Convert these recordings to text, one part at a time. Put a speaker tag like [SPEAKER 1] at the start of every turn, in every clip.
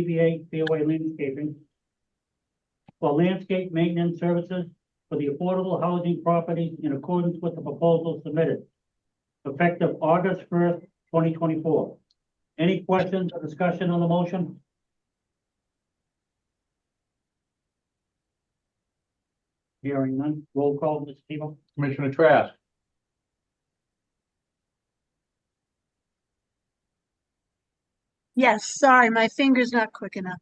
[SPEAKER 1] DBA Fairway Landscaping for landscape maintenance services for the affordable housing property in accordance with the proposal submitted, effective August first, twenty twenty-four. Any questions or discussion on the motion? Hearing none, roll call, Mr. Tebow?
[SPEAKER 2] Commissioner Trask,
[SPEAKER 3] Yes, sorry, my finger's not quick enough.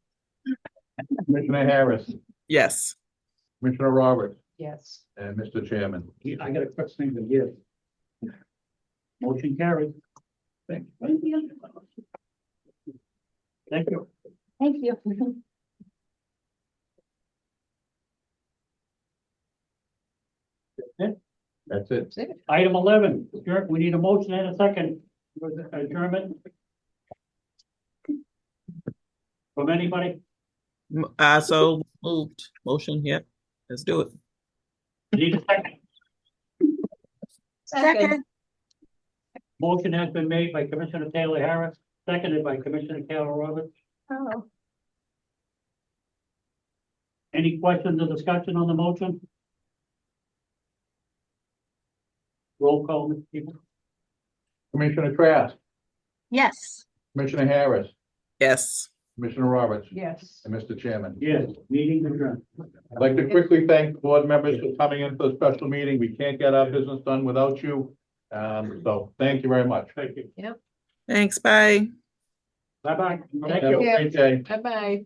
[SPEAKER 2] Commissioner Harris,
[SPEAKER 4] Yes,
[SPEAKER 2] Commissioner Roberts,
[SPEAKER 5] yes,
[SPEAKER 2] and Mr. Chairman.
[SPEAKER 1] Yeah, I got a quick thing to give. Motion carried. Thank you. Thank you.
[SPEAKER 5] thank you.
[SPEAKER 2] That's it.
[SPEAKER 1] Item eleven, Jerk, we need a motion and a second for the adjournment. From anybody,
[SPEAKER 4] M- uh, so moved, motion, yep, let's do it.
[SPEAKER 1] need a second.
[SPEAKER 3] Second,
[SPEAKER 1] Motion has been made by Commissioner Taylor Harris, seconded by Commissioner Taylor Roberts.
[SPEAKER 3] oh,
[SPEAKER 1] Any questions or discussion on the motion? Roll call, Mr. Tebow?
[SPEAKER 2] Commissioner Trask,
[SPEAKER 3] yes,
[SPEAKER 2] Commissioner Harris,
[SPEAKER 4] Yes,
[SPEAKER 2] Commissioner Roberts,
[SPEAKER 5] Yes.
[SPEAKER 2] and Mr. Chairman.
[SPEAKER 1] Yes, meeting adjourned.
[SPEAKER 2] I'd like to quickly thank board members for coming in for the special meeting. We can't get our business done without you. Um, so thank you very much.
[SPEAKER 1] Thank you.
[SPEAKER 4] thanks, bye.
[SPEAKER 1] Bye-bye. Thank
[SPEAKER 2] Have a
[SPEAKER 1] you.
[SPEAKER 2] great day.
[SPEAKER 5] Bye-bye.